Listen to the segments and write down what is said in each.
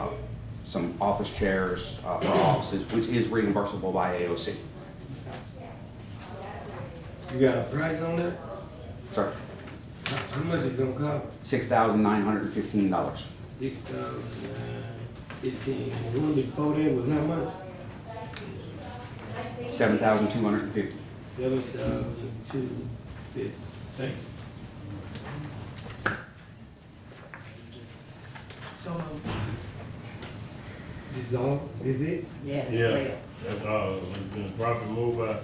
uh, some office chairs uh, for offices, which is reimbursable by AOC. You got a price on that? Sorry, How how much it gonna cost? six thousand nine hundred and fifteen dollars. Six thousand uh, fifteen. The one before that was how much? Seven thousand two hundred and fifty. Seven thousand two fifty. Thank you. So moved. Is all, is it? Yes. Yeah, ma'am. that's, uh, it's been properly moved by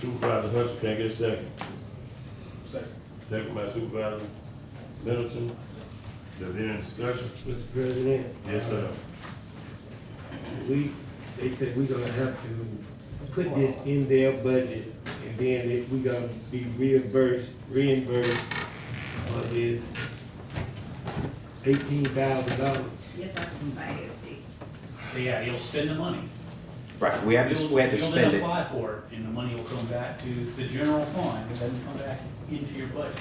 Supervisor Hutchins, can I get a second? Second. Second by Supervisor Middleton, is there any discussion? Mr. President? Uh, Yes, sir. We, they said we gonna have to put this in their budget, and then it- we gonna be reimbursed, reimbursed for this eighteen thousand dollars. Yes, I can buy AOC. But yeah, you'll spend the money. Right, we have to, we have to You'll- spend it. You'll then apply for it, and the money will come back to the general fund, it doesn't come back into your budget.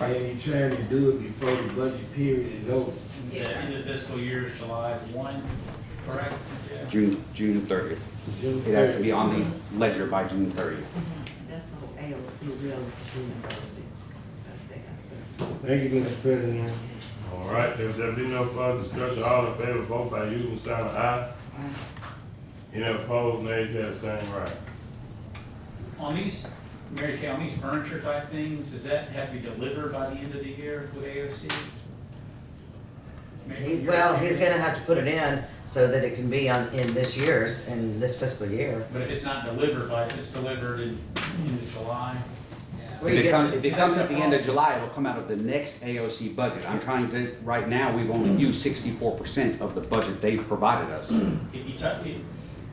And you trying to do it before the budget period is over. And Yes, The sir. end of fiscal year is July one, correct? Yeah. June, June thirtieth. June It has to be 30th. on the ledger by June thirtieth. Mm-hmm. That's the whole AOC, real AOC. So I think I said. Thank you, Mr. President. All right, if there be no further discussion, all in favor, vote by using sign of aye. Aye. Any opposed, nays have the same right. On these, Mary Kay, on these furniture type things, does that have to be delivered by the end of the year with AOC? Mary, He, you're- well, he's gonna have to put it in so that it can be on, in this year's, in this fiscal year. But if it's not delivered, like, if it's delivered in, into July, Where If you it comes, get, if it comes at the end of July, it'll come out of the next AOC budget. I'm trying to, right now, we've only used sixty-four percent of the budget they've provided us. if you talk, if-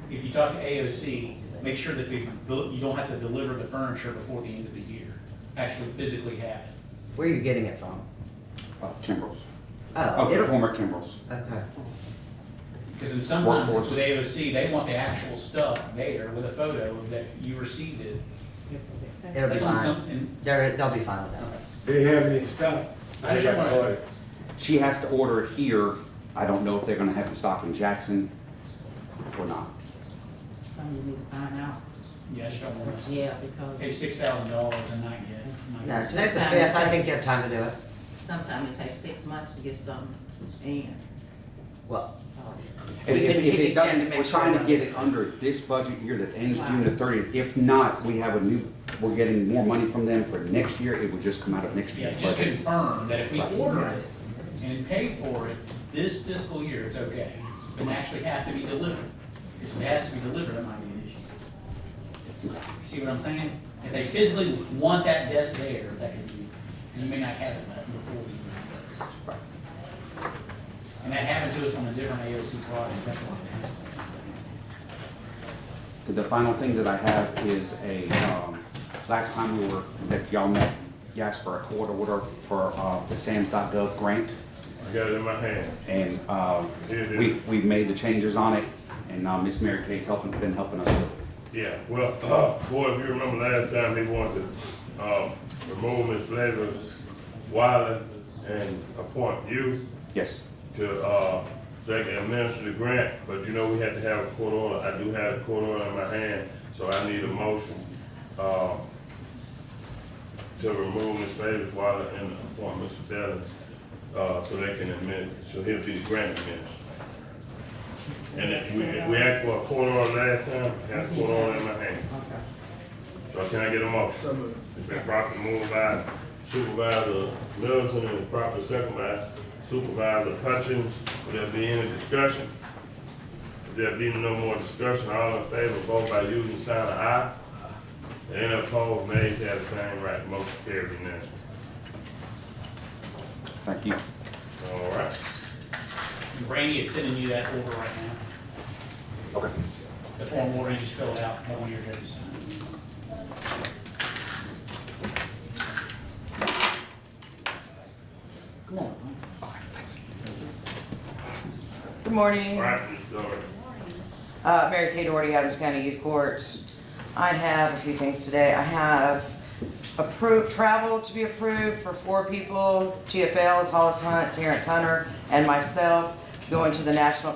if you talk to AOC, make sure that they- you don't have to deliver the furniture before the end of the year. Actually physically have it. where are you getting it from? Uh, Kimbrels. Oh, Okay, it'll, former Kimbrels. okay. Because in sometimes Workforce. with AOC, they want the actual stuff there with a photo that you received it. It'll be That's when fine. some, and They're, they'll be fine with that. They have it in stock. I just They got wanna- ordered. She has to order it here. I don't know if they're gonna have it stock in Jackson or not. Something you need to find out. yeah, I just don't want to Yeah, pay because six thousand dollars and not get. not No, get- today's the fifth, I think you have time to do it. sometimes it takes six months to get something in. Well, So, If, We if- if can- we it can check doesn't, to we're make trying sure. to get it under this budget year that ends Wow. June the thirtieth. If not, we have a new, we're getting more money from them for next year. It would just come out of next Yeah, year's just budget. confirm that if we Right. order it and pay for it this fiscal year, it's okay. But it actually have to be delivered. Because if it has to be delivered, it might be an issue. See what I'm saying? If they physically want that desk there, that could be, because you may not have it before we. And that happened to us on a different AOC project, that's why I'm asking. The final thing that I have is a, um, last time we were, that y'all met, you asked for a court order for, uh, the SAMS.gov grant. I got it in my hand. And, um, Here it is. we, we've made the changes on it and, uh Ms. Mary Kay's helping, been helping us. Yeah, well, boy, if you remember last time, they wanted to, um, remove Ms. Flavors Wiley and appoint you. Yes, to, uh, so I can administer the grant, but you know, we had to have a court order. I do have a court order in my hand, so I need a motion, uh, to remove Ms. Davis Wilder and appoint Mr. Taylor, uh, so they can admit, so he'll be the grant administrator. And if we, we asked for a court order last time, I had a court order in my hand. okay. So can I get a motion? It's been properly moved by Supervisor Middleton and properly second by Supervisor Hutchins. Will there be any discussion? If there be no more discussion, all in favor, vote by using the sign of aye. Any opposed, nay, they have the same right, motion carries unanimously. thank you. All right. And Randy is sending you that order right now. Okay. The form order, you just fill it out, no one here to sign. Come on. man. Good morning. All right, Ms. Doherty. Uh, Mary Kay Doherty, Adams County Youth Court. I have a few things today. I have approved, travel to be approved for four people, TFLs, Hollis Hunt, Terrence Hunter, and myself, going to the National